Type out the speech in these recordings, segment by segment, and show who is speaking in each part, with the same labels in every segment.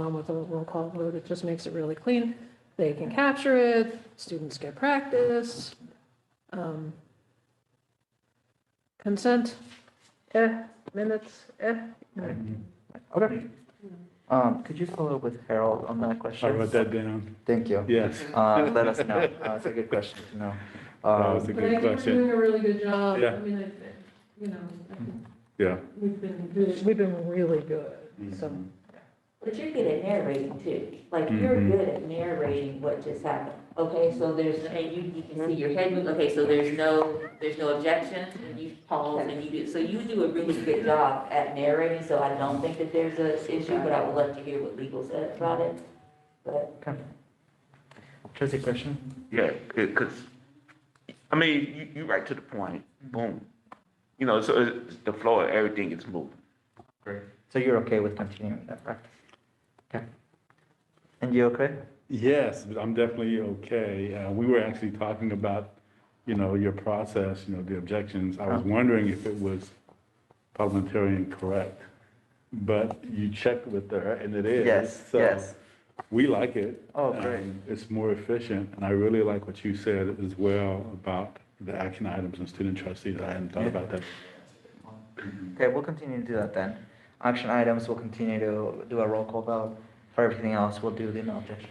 Speaker 1: on with a roll call vote, it just makes it really clean. They can capture it, students get practice. um, Consent, eh, minutes, eh.
Speaker 2: Okay. Um, could you follow up with Harold on that question?
Speaker 3: I wrote that down.
Speaker 2: Thank you.
Speaker 3: Yes,
Speaker 2: Uh, let us know. Uh, it's a good question to know.
Speaker 3: that was a
Speaker 2: Um,
Speaker 1: But I
Speaker 3: good
Speaker 1: think we're
Speaker 3: question.
Speaker 1: doing a really good job. I
Speaker 3: Yeah.
Speaker 1: mean, I, think, you know, I think
Speaker 3: Yeah.
Speaker 1: we've been, good- we've been really good, so.
Speaker 4: But you're good at narrating too. Like, you're
Speaker 3: Mhm.
Speaker 4: good at narrating what just happened. Okay, so there's, and you, you can see your head move. Okay, so there's no, there's no objection, and you pause and you do. So you do a really good job at narrating, so I don't think that there's a issue, but I would love to hear what legal said about it. But
Speaker 2: Trustee question?
Speaker 5: Yeah, because, I mean, you, you right to the point, boom. You know, so it's- the floor, everything is moving.
Speaker 2: Great. So you're okay with continuing that practice? Okay. And you okay?
Speaker 3: Yes, but I'm definitely okay. Uh, we were actually talking about, you know, your process, you know, the objections. I
Speaker 2: Oh.
Speaker 3: was wondering if it was parliamentarian correct, but you checked with her and it is.
Speaker 2: Yes,
Speaker 3: So
Speaker 2: yes.
Speaker 3: We like it.
Speaker 2: Oh, great.
Speaker 3: Um, It's more efficient, and I really like what you said as well about the action items and student trustees. I hadn't thought about that.
Speaker 2: Okay, we'll continue to do that then. Action items, we'll continue to do a roll call vote. For everything else, we'll do the no objection.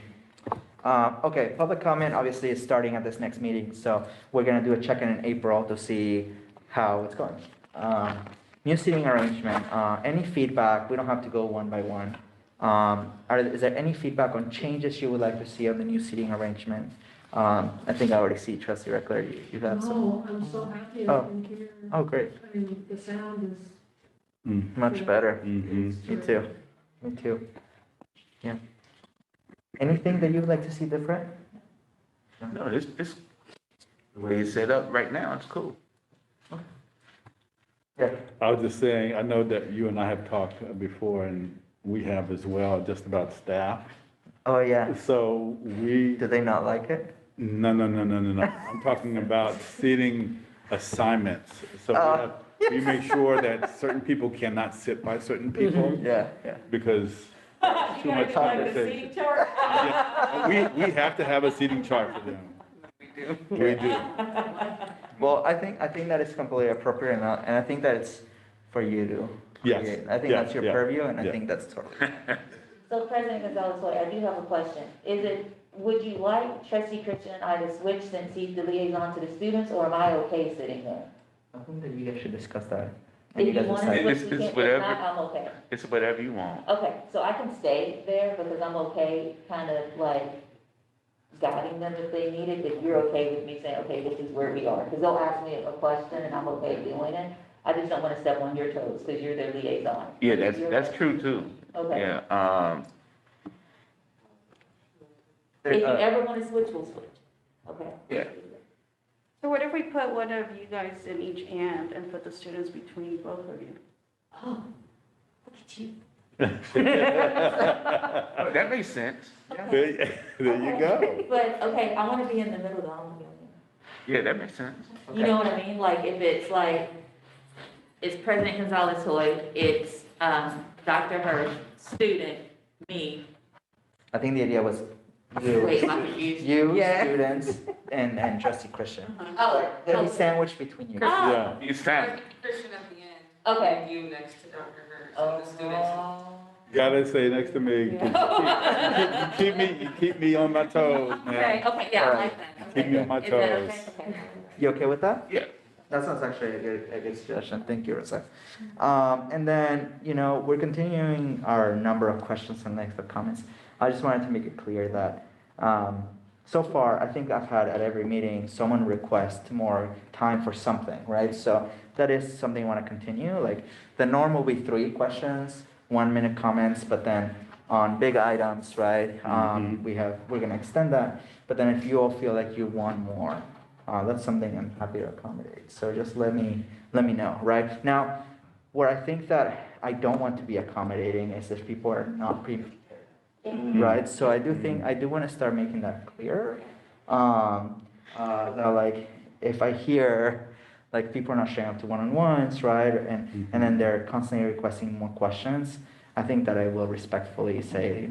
Speaker 2: Uh, okay, public comment obviously is starting at this next meeting, so we're gonna do a check-in in April to see how it's going. Um, new seating arrangement, uh, any feedback, we don't have to go one by one. Um, are, is there any feedback on changes you would like to see on the new seating arrangement? Um, I think I already see trustee Reckler, you, you have some.
Speaker 1: No, I'm so happy I
Speaker 2: Oh.
Speaker 1: can hear.
Speaker 2: Oh, great,
Speaker 1: I mean, the sound is.
Speaker 3: Mm,
Speaker 2: much better.
Speaker 3: mhm.
Speaker 2: Me too. Me too. Yeah. Anything that you would like to see different?
Speaker 5: No, this, this, the way it's set up right now, it's cool.
Speaker 2: Yeah.
Speaker 3: I was just saying, I know that you and I have talked before, and we have as well, just about staff.
Speaker 2: Oh, yeah.
Speaker 3: So we,
Speaker 2: Do they not like it?
Speaker 3: no, no, no, no, no, no. I'm talking about seating assignments. So we
Speaker 2: Oh.
Speaker 3: have, we make sure that certain people cannot sit by certain people
Speaker 2: Yeah, yeah.
Speaker 3: because too much conversation. Yeah. We, we have to have a seating chart for them. We do. We do.
Speaker 2: Well, I think, I think that it's completely appropriate and, I- and I think that it's for you to.
Speaker 3: Yes,
Speaker 2: create. I think
Speaker 3: yeah,
Speaker 2: that's your
Speaker 3: yeah,
Speaker 2: purview and I
Speaker 3: yeah.
Speaker 2: think that's totally.
Speaker 4: So President Gonzalez, Floyd, I do have a question. Is it, would you like trustee Christian and I to switch since he's the liaison to the students, or am I okay sitting there?
Speaker 2: I think that you guys should discuss that. and
Speaker 4: If you
Speaker 2: guys
Speaker 4: want
Speaker 2: decide.
Speaker 4: to
Speaker 5: It's-
Speaker 4: switch,
Speaker 5: it's
Speaker 4: we can. If
Speaker 5: whatever.
Speaker 4: not, I'm okay.
Speaker 5: It's whatever you want.
Speaker 4: Okay, so I can stay there because I'm okay, kind of like guiding them if they need it, but you're okay with me saying, okay, this is where we are? Because they'll ask me a question and I'm okay doing it. I just don't want to step on your toes because you're their liaison.
Speaker 5: Yeah, that's,
Speaker 4: You're-
Speaker 5: that's true too.
Speaker 4: Okay.
Speaker 5: Yeah, um,
Speaker 2: There-
Speaker 4: If you
Speaker 2: uh,
Speaker 4: ever want to switch, we'll switch. Okay?
Speaker 5: Yeah.
Speaker 6: So what if we put one of you guys in each hand and put the students between both of you?
Speaker 4: Oh, look at you.
Speaker 5: that makes sense.
Speaker 3: There y- there you go.
Speaker 4: But, okay, I want to be in the middle though. I wanna be on the end.
Speaker 5: Yeah, that makes sense.
Speaker 4: You know what I mean? Like, if it's like, it's President Gonzalez Hoy, it's, um, Dr. Hirsch, student, me,
Speaker 2: I think the idea was
Speaker 4: wait,
Speaker 2: you,
Speaker 4: my confusion.
Speaker 2: you,
Speaker 4: Yeah.
Speaker 2: students, and, and trustee Christian.
Speaker 4: Oh,
Speaker 2: They'll be
Speaker 4: oh,
Speaker 2: sandwiched between you.
Speaker 4: Ah.
Speaker 3: Yeah.
Speaker 5: It's time.
Speaker 7: Christian at the end.
Speaker 4: okay.
Speaker 7: You next to Dr. Hurd, so the students.
Speaker 4: Oh.
Speaker 3: Gotta say next to me. You keep me, you keep me on my toes,
Speaker 4: Okay,
Speaker 3: man.
Speaker 4: okay, yeah, I like that.
Speaker 3: Keep me on my
Speaker 4: Is that okay?
Speaker 3: toes.
Speaker 4: Okay.
Speaker 2: You okay with that?
Speaker 5: Yeah.
Speaker 2: That sounds actually a good, a good suggestion. Thank you, Rosa. Um, and then, you know, we're continuing our number of questions and length of comments. I just wanted to make it clear that, um, so far, I think I've had at every meeting, someone request more time for something, right? So that is something I want to continue. Like, the norm will be three questions, one minute comments, but then on big items, right? Um, we have, we're gonna extend that, but then if you all feel like you want more, uh, that's something I'm happy to accommodate. So just let me, let me know, right? Now, where I think that I don't want to be accommodating is if people are not pre-prepared, right? So I do think, I do want to start making that clear. Um, uh, that like, if I hear, like, people are not showing up to one-on-ones, right? And, and then they're constantly requesting more questions, I think that I will respectfully say,